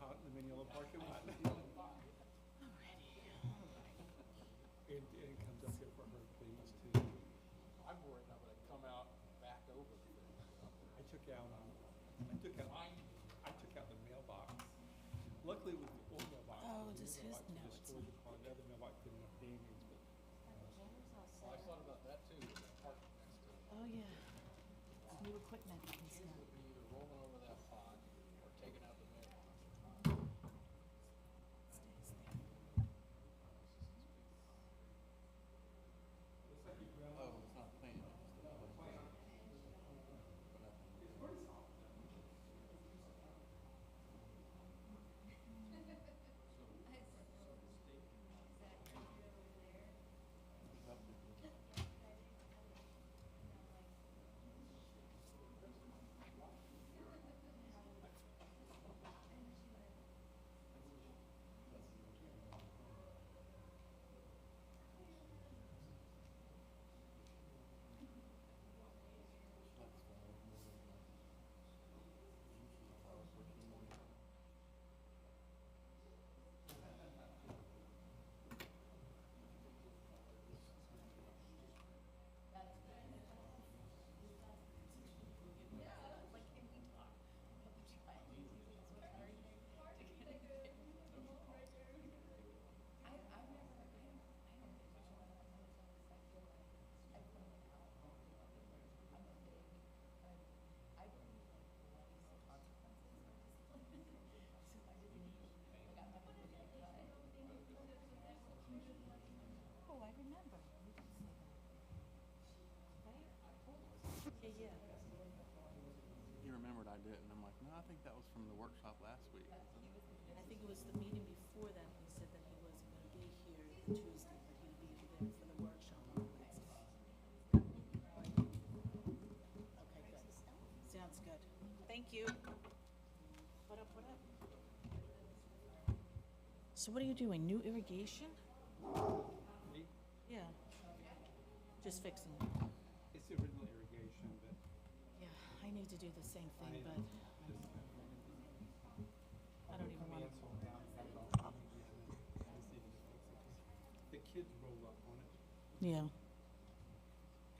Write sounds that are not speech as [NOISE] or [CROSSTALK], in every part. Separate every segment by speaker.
Speaker 1: pot in the Mineola parking
Speaker 2: [LAUGHS]
Speaker 1: lot. And, and comes up here for her, please, too.
Speaker 2: I'm worried I'm gonna come out back over the thing.
Speaker 1: I took out, um, I took out, I took out the mailbox. Luckily with the old mailbox.
Speaker 3: Oh,
Speaker 1: the new
Speaker 3: does his-
Speaker 1: mailbox
Speaker 3: no,
Speaker 1: was
Speaker 3: it's
Speaker 1: stored in the car, The other mailbox didn't have damage, but
Speaker 2: Well, I thought about that too, when I parked next to it.
Speaker 3: Oh, yeah. It's new equipment and
Speaker 2: It
Speaker 3: stuff.
Speaker 2: would be either rolling over that pod or taking out the Oh, mailbox.
Speaker 3: Stays there.
Speaker 2: Oh, it's not planned. No, planned.
Speaker 3: Oh, I remember. You did say that. Right? Yeah, yeah.
Speaker 4: He remembered I did, and I'm like, no, I think that was from the workshop last week.
Speaker 3: I think it was the meeting before that, he said that he wasn't gonna be here Tuesday, but he'd be there for the workshop on Wednesday. Okay, good. Sounds good. Thank you. What up, what up? So what are you doing? New irrigation?
Speaker 1: me,
Speaker 3: Yeah. Just fixing it.
Speaker 1: it's original irrigation, but
Speaker 3: Yeah, I need to do the same
Speaker 1: I
Speaker 3: thing,
Speaker 1: need
Speaker 3: but
Speaker 1: to
Speaker 3: I
Speaker 1: just.
Speaker 3: don't even wanna,
Speaker 1: The kids roll up on it,
Speaker 3: yeah,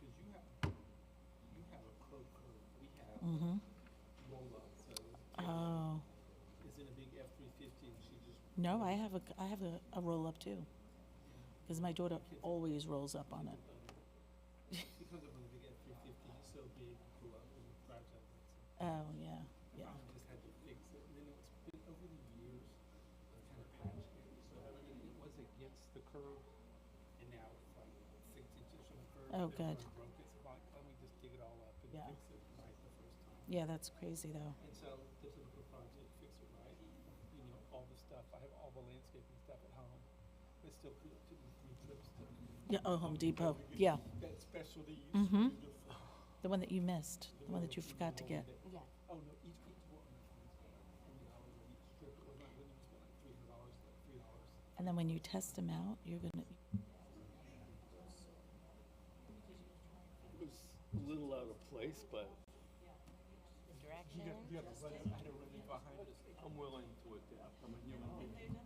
Speaker 1: cause you have, you have a crow curve, we have
Speaker 3: mm-hmm.
Speaker 1: roll up, so
Speaker 3: Oh,
Speaker 1: it's in a big F three fifty and she just.
Speaker 3: no, I have a, I have a, a roll up too. Cause my daughter always rolls up on it.
Speaker 1: She comes up with a big F three fifty, it's so big, grew up and drives up. and
Speaker 3: Oh, yeah,
Speaker 1: so I
Speaker 3: yeah.
Speaker 1: probably just had to fix it, and then it's been over the years, it's kind of patched here, so it was against the curve, and now it's like six inches from the curve.
Speaker 3: Oh,
Speaker 1: They're
Speaker 3: good.
Speaker 1: kinda Broke it, so why don't we just dig it all up and
Speaker 3: Yeah.
Speaker 1: fix it right the first time?
Speaker 3: Yeah, that's crazy though.
Speaker 1: And so this is a project, fix it right, you know, all the stuff, I have all the landscaping stuff at home, but still could, to do trips to
Speaker 3: Yeah, oh, Home Depot, yeah,
Speaker 1: that specialty you
Speaker 3: Mhm.
Speaker 1: do the f-
Speaker 3: the one that you missed,
Speaker 1: the
Speaker 3: the one that you forgot to get.
Speaker 1: Yeah. Oh, no, each, each one. $20 on each strip. It was like, when it was like three hundred dollars, like three dollars.
Speaker 3: And then when you test them out, you're
Speaker 1: It
Speaker 3: gonna,
Speaker 1: was a little out of place, but. You got, you got to run, I had to run it behind. I'm willing to adapt, I'm a human being.